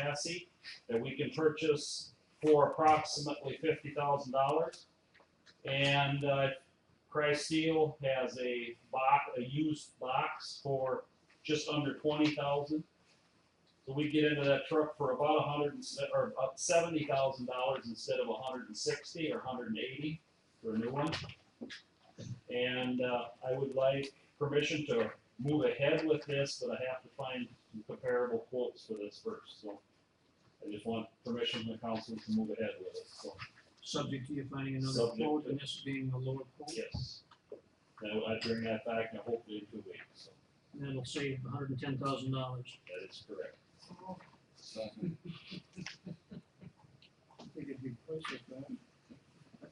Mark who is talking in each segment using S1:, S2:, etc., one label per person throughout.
S1: chassis that we can purchase for approximately fifty thousand dollars. And, uh, Christ Steel has a box, a used box for just under twenty thousand. So we get into that truck for about a hundred and se- or about seventy thousand dollars instead of a hundred and sixty or a hundred and eighty for a new one. And, uh, I would like permission to move ahead with this, but I have to find some comparable quotes for this first, so. I just want permission from the council to move ahead with it, so,
S2: Subject to you finding another
S1: Subject
S2: quote
S1: to-
S2: and this being a lower quote,
S1: yes. Now, I bring that back and hopefully in two weeks, so
S2: and that'll save hundred and ten thousand dollars.
S1: that is correct.
S2: I think it'd be close to that.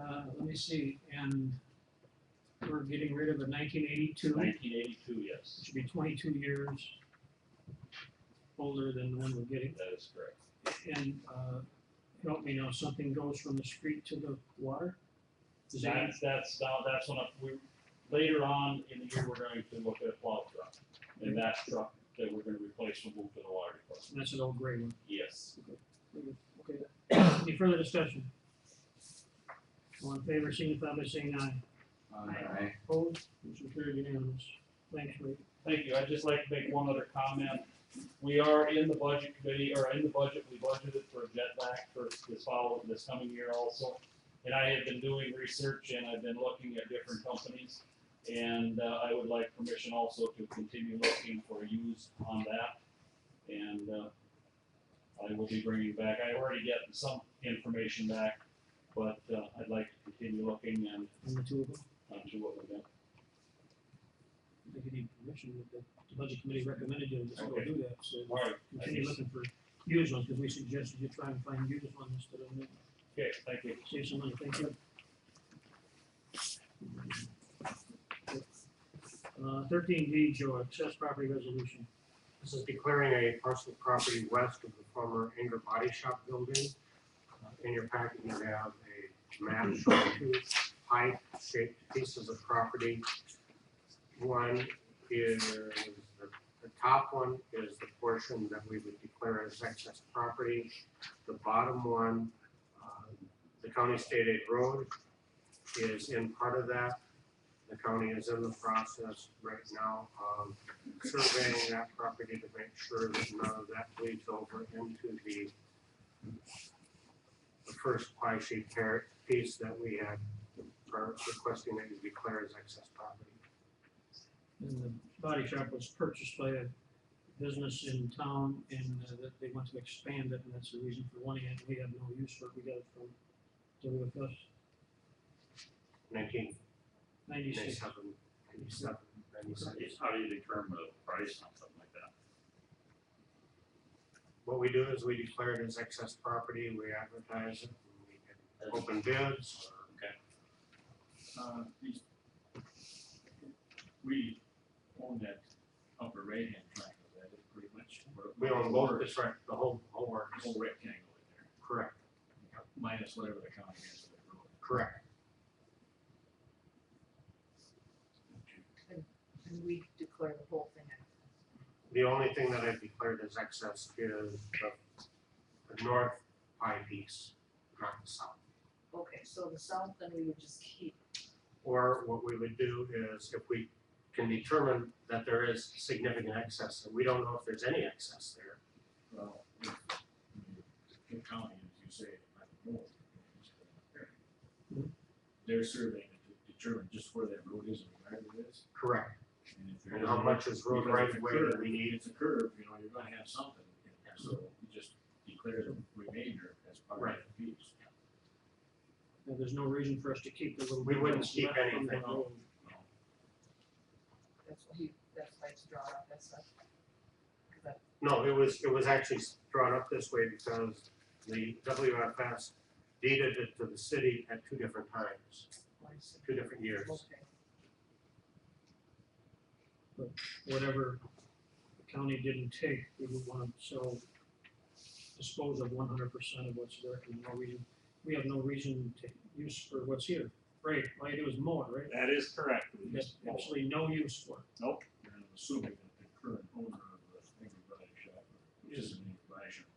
S2: Uh, let me see, and we're getting rid of a nineteen eighty-two, which
S1: Nineteen eighty-two, yes,
S2: should be twenty-two years older than the one we're getting.
S1: that is correct.
S2: And, uh, help me now, something goes from the street to the water? Is that-
S1: That's, that's, now- that's when I- we, later on in the year, we're going to look at a plow truck. And that truck that we're gonna replace will move to the water department,
S2: That's an old gray one.
S1: yes.
S2: Okay. Any further discussion? All in favor, signify by saying aye.
S3: Aye.
S2: Opposed, motion carried unanimous. Thanks, Ray.
S1: Thank you, I'd just like to make one other comment. We are in the budget committee, or in the budget, we budgeted for a jetback for this follow, this coming year also. And I have been doing research and I've been looking at different companies. And uh, I would like permission also to continue looking for use on that. And uh, I will be bringing back, I already get some information back, but uh, I'd like to continue looking and
S2: And the two of them,
S1: on to what we got.
S2: I think you need permission, that the the budget committee recommended you to just go
S1: Okay.
S2: do that, so
S1: All right, I
S2: continue
S1: guess-
S2: looking for used ones, because we suggested you try and find used ones instead of new.
S1: okay, thank you.
S2: uh, Save some money, thank you. Uh, thirteen D, Joe, access property resolution.
S4: This is declaring a parcel of property west of the former Anger Body Shop building. Uh, In your packet, you have a map showing two pipe-shaped pieces of property. One is, the the top one is the portion that we would declare as excess property. The bottom one, uh, the county state aid road is in part of that. The county is in the process right now of surveying that property to make sure that none of that bleeds over into the the first pie sheet par- piece that we had, are requesting that you declare as excess property.
S2: And the body shop was purchased by a business in town and uh, that they want to expand it, and that's the reason for wanting it. We have no use for it. We got it from WFS
S4: Nineteen
S2: ninety-six.
S4: ninety-seven, ninety-seven, ninety-six.
S5: How do you determine the price on something like that?
S4: What we do is we declare it as excess property, we advertise it, and we can open bids, or
S5: Uh, these- We own that upper right-hand triangle, that is pretty much. what-
S4: we own both, that's right, the whole, whole works.
S5: Whole rectangle in there,
S4: Correct,
S5: minus whatever the county has for the road.
S4: correct.
S6: And we declare the whole thing out.
S4: The only thing that I've declared as excess is the, the north pie piece, not the south.
S6: Okay, so the south, then we would just keep.
S4: Or what we would do is if we can determine that there is significant excess, and we don't know if there's any excess there.
S5: Well, if The county, as you say, I don't know. it's
S4: Hmm.
S5: gonna vary. They're surveying it to determine just where that road is and where it is.
S4: Correct.
S5: And if there
S4: And how
S5: is-
S4: much is road right of way that we need,
S5: It's a curve, you know, you're gonna have something, in there, so you just declare the remainder as part of the piece.
S2: Now, there's no reason for us to keep the little.
S4: We
S2: bit
S4: wouldn't
S2: that's
S4: keep
S2: left on the
S4: anything.
S2: road.
S6: That's what he, that's why it's drawn up, that's not. Cause that,
S4: No, it was, it was actually drawn up this way because the WFS deeded it to the city at two different times,
S6: why is it-
S4: two different years.
S6: okay,
S2: Whatever the county didn't take, we would want to sell, dispose of one hundred percent of what's there. And no reason, we have no reason to use for what's here. Right, all you do is mow it, right?
S5: That is correct.
S2: We got absolutely no use for it.
S5: Nope. And I'm assuming that the current owner of the Angry Body Shop, which is an Angry Body measurement.